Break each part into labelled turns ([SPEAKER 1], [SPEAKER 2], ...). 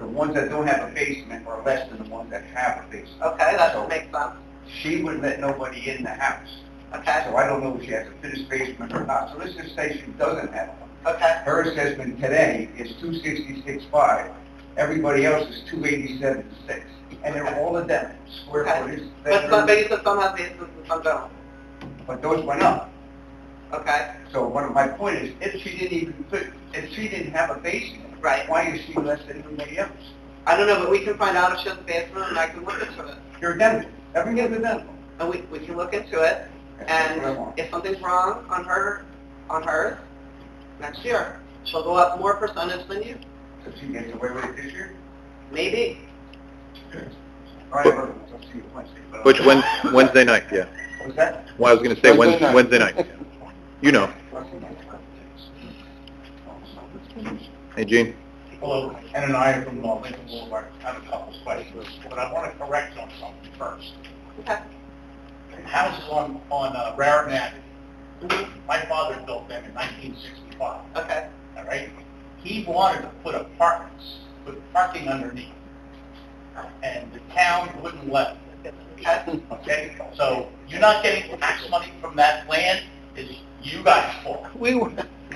[SPEAKER 1] ones that don't have a basement are less than the ones that have a basement.
[SPEAKER 2] Okay, that makes sense.
[SPEAKER 1] She wouldn't let nobody in the house.
[SPEAKER 2] Okay,
[SPEAKER 1] So I don't know if she has a finished basement or not. So let's just say she doesn't have one.
[SPEAKER 2] okay,
[SPEAKER 1] Her assessment today is two sixty-six five. Everybody else is two eighty-seven six. And they're all of them, square
[SPEAKER 2] Okay.
[SPEAKER 1] footage,
[SPEAKER 2] but
[SPEAKER 1] bedrooms,
[SPEAKER 2] some, but you said some have basements and some don't,
[SPEAKER 1] but those went up.
[SPEAKER 2] okay,
[SPEAKER 1] So one of my point is, if she didn't even put, if she didn't have a basement,
[SPEAKER 2] right.
[SPEAKER 1] why is she less than everybody else?
[SPEAKER 2] I don't know, but we can find out if she has a basement and I can look into it.
[SPEAKER 1] You're a dentist. Every other dentist.
[SPEAKER 2] And we, we can look into it
[SPEAKER 1] That's what I
[SPEAKER 2] And
[SPEAKER 1] want.
[SPEAKER 2] if something's wrong on her, on hers, next year, she'll go up more percentage than you,
[SPEAKER 1] So she gets away with it this year?
[SPEAKER 2] maybe.
[SPEAKER 1] All right, well, I'll see you Wednesday.
[SPEAKER 3] Uh,
[SPEAKER 1] but-
[SPEAKER 4] Which Wed- Wednesday night, yeah.
[SPEAKER 1] What's that?
[SPEAKER 4] Well, I was going to say
[SPEAKER 5] Wednesday
[SPEAKER 4] Wednesday,
[SPEAKER 5] night.
[SPEAKER 4] Wednesday night. You know. Hey, Gene.
[SPEAKER 3] Hello, Ken and I are from uh, Lincoln Boulevard. I have a couple of questions, but I want to correct on something first.
[SPEAKER 2] Okay.
[SPEAKER 3] Houses on, on uh, Raritan Avenue,
[SPEAKER 2] Mhm.
[SPEAKER 3] my father built them in 1965,
[SPEAKER 2] Okay,
[SPEAKER 3] all right? He wanted to put apartments, put parking underneath, and the town wouldn't let him.
[SPEAKER 2] okay,
[SPEAKER 3] Okay? So you're not getting tax money from that land, it's you guys' fault.
[SPEAKER 2] we were.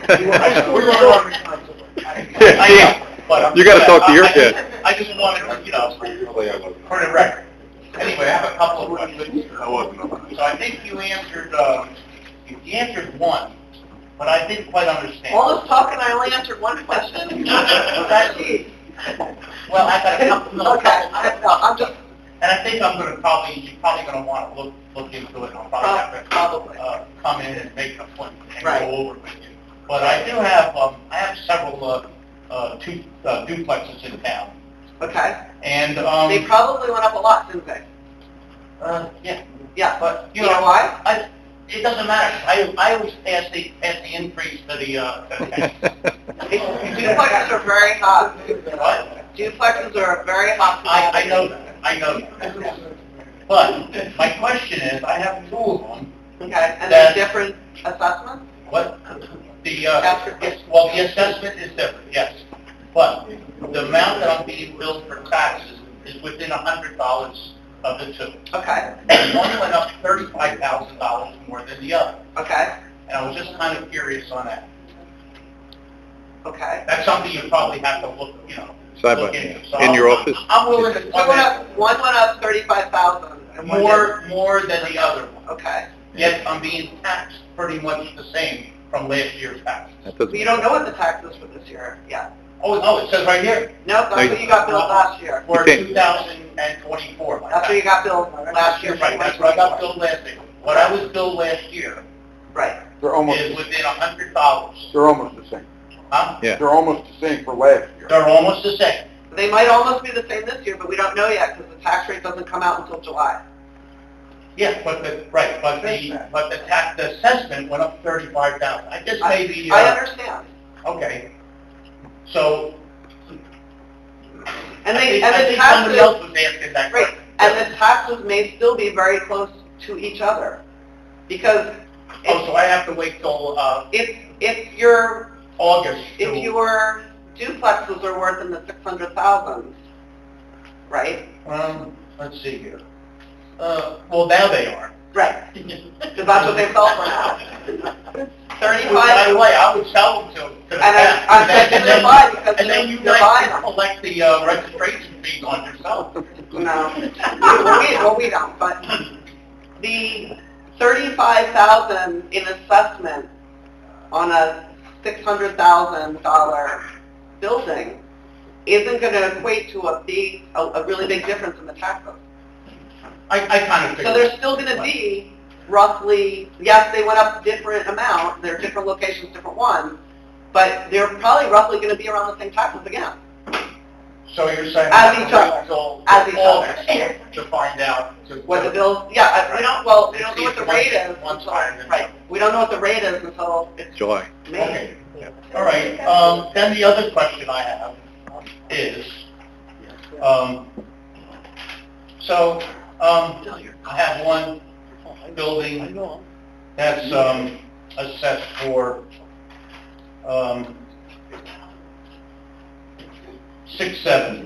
[SPEAKER 3] We're all responsible. I know, but I'm-
[SPEAKER 4] You gotta talk to your
[SPEAKER 3] I- I-
[SPEAKER 4] kid.
[SPEAKER 3] I just wanted, to, you know, for the record. Anyway, I have a couple of questions. So I think you answered, uh, you answered one, but I didn't quite understand.
[SPEAKER 2] All this talk and I only answered one question.
[SPEAKER 3] Okay. Well, I got a couple, no, a
[SPEAKER 2] Okay,
[SPEAKER 3] couple-
[SPEAKER 2] I, no, I'm just,
[SPEAKER 3] and I think I'm gonna probably, you're probably gonna wanna look, look into it, and I'll probably have to
[SPEAKER 2] probably,
[SPEAKER 3] uh, come in and make an appointment
[SPEAKER 2] Oh.
[SPEAKER 3] and
[SPEAKER 2] Right.
[SPEAKER 3] go over with you. But I do have, um, I have several, uh, uh, two uh, duplexes in town,
[SPEAKER 2] okay,
[SPEAKER 3] and,
[SPEAKER 2] they
[SPEAKER 3] um,
[SPEAKER 2] probably went up a lot, didn't they?
[SPEAKER 3] uh, yeah,
[SPEAKER 2] Yeah,
[SPEAKER 3] but,
[SPEAKER 2] you know why?
[SPEAKER 3] I, it doesn't matter, I, I always pass the, pass the increase to the, uh, to the tax.
[SPEAKER 2] Duplexes are very hot,
[SPEAKER 3] What?
[SPEAKER 2] duplexes are very hot.
[SPEAKER 3] I, I know that, I know that. But, my question is, I have two of them,
[SPEAKER 2] Okay, and they're
[SPEAKER 3] That-
[SPEAKER 2] different assessments?
[SPEAKER 3] What, the,
[SPEAKER 2] That's
[SPEAKER 3] uh,
[SPEAKER 2] for-
[SPEAKER 3] yes, well, the assessment is different, yes. But the amount that I'm being billed for taxes is within a hundred dollars of the two.
[SPEAKER 2] Okay,
[SPEAKER 3] And one went up thirty-five thousand dollars more than the other.
[SPEAKER 2] okay,
[SPEAKER 3] And I was just kind of curious on that.
[SPEAKER 2] okay.
[SPEAKER 3] That's something you probably have to look, you know,
[SPEAKER 4] Side
[SPEAKER 3] look
[SPEAKER 4] by.
[SPEAKER 3] into. So
[SPEAKER 4] In your
[SPEAKER 3] I'm-
[SPEAKER 4] office?
[SPEAKER 3] I'm willing
[SPEAKER 2] So
[SPEAKER 3] to,
[SPEAKER 2] one up, one went up thirty-five thousand and one didn't.
[SPEAKER 3] more, more than the other one.
[SPEAKER 2] Okay,
[SPEAKER 3] Yet I'm being taxed pretty much the same from last year's taxes.
[SPEAKER 4] That
[SPEAKER 2] so you don't
[SPEAKER 4] doesn't.
[SPEAKER 2] know what the tax is for this year, yeah.
[SPEAKER 3] Oh, no, it says right here,
[SPEAKER 2] No, that's what you got billed last year.
[SPEAKER 3] for
[SPEAKER 4] Okay.
[SPEAKER 3] 2024. my
[SPEAKER 2] That's what you got billed last year.
[SPEAKER 3] That's right, that's what I got billed last year. What I was billed last year
[SPEAKER 2] Right,
[SPEAKER 5] They're almost,
[SPEAKER 3] is within a hundred dollars.
[SPEAKER 5] they're almost the same.
[SPEAKER 3] Huh?
[SPEAKER 4] Yeah.
[SPEAKER 5] They're almost the same for last year.
[SPEAKER 3] They're almost the same.
[SPEAKER 2] they might almost be the same this year, but we don't know yet because the tax rate doesn't come out until July.
[SPEAKER 3] Yeah, but the, right, but the, but the tax, the assessment went up thirty-five thousand. I guess
[SPEAKER 2] I-
[SPEAKER 3] maybe,
[SPEAKER 2] I
[SPEAKER 3] uh,
[SPEAKER 2] understand.
[SPEAKER 3] okay. So, I
[SPEAKER 2] And they,
[SPEAKER 3] think,
[SPEAKER 2] and
[SPEAKER 3] I
[SPEAKER 2] the
[SPEAKER 3] think somebody else
[SPEAKER 2] taxes,
[SPEAKER 3] was asking that
[SPEAKER 2] right,
[SPEAKER 3] question.
[SPEAKER 2] and the taxes may still be very close to each other. Because
[SPEAKER 3] Oh, so I have to wait till, uh,
[SPEAKER 2] if, if your
[SPEAKER 3] August
[SPEAKER 2] if
[SPEAKER 3] to,
[SPEAKER 2] your duplexes are worth in the six hundred thousand, right?
[SPEAKER 3] um, let's see here. Uh, well, now they are.
[SPEAKER 2] Right. Because that's what they sell for now.
[SPEAKER 3] By
[SPEAKER 2] Thirty-five,
[SPEAKER 3] the way, I would sell them to, to the
[SPEAKER 2] and I, I'm
[SPEAKER 3] town.
[SPEAKER 2] saying
[SPEAKER 3] And
[SPEAKER 2] they're
[SPEAKER 3] then-
[SPEAKER 2] buying because
[SPEAKER 3] And then
[SPEAKER 2] they're
[SPEAKER 3] you
[SPEAKER 2] they're buying
[SPEAKER 3] guys can
[SPEAKER 2] them.
[SPEAKER 3] collect the uh, registration fee on yourself.
[SPEAKER 2] No, well, we, well, we don't, but the thirty-five thousand in assessment on a six hundred thousand dollar building isn't gonna equate to a big, a, a really big difference in the taxes.
[SPEAKER 3] I, I kind
[SPEAKER 2] So
[SPEAKER 3] of figured.
[SPEAKER 2] there's still going to be roughly, yes, they went up different amount, they're different locations, different ones, but they're probably roughly going to be around the same taxes again.
[SPEAKER 3] So you're saying.
[SPEAKER 2] As each other.
[SPEAKER 3] Until
[SPEAKER 2] As each other.
[SPEAKER 3] August to find out. to-
[SPEAKER 2] What the bills, yeah, I- we don't, well, we don't know what the
[SPEAKER 3] It's each
[SPEAKER 2] rate is
[SPEAKER 3] one- one
[SPEAKER 2] until,
[SPEAKER 3] time and-
[SPEAKER 2] right, we don't know what the rate is until it's
[SPEAKER 4] July.
[SPEAKER 2] May.
[SPEAKER 3] Okay, all right. Um, then the other question I have is, um, so, um, I have one building that's, um, assessed for, um, six seventy.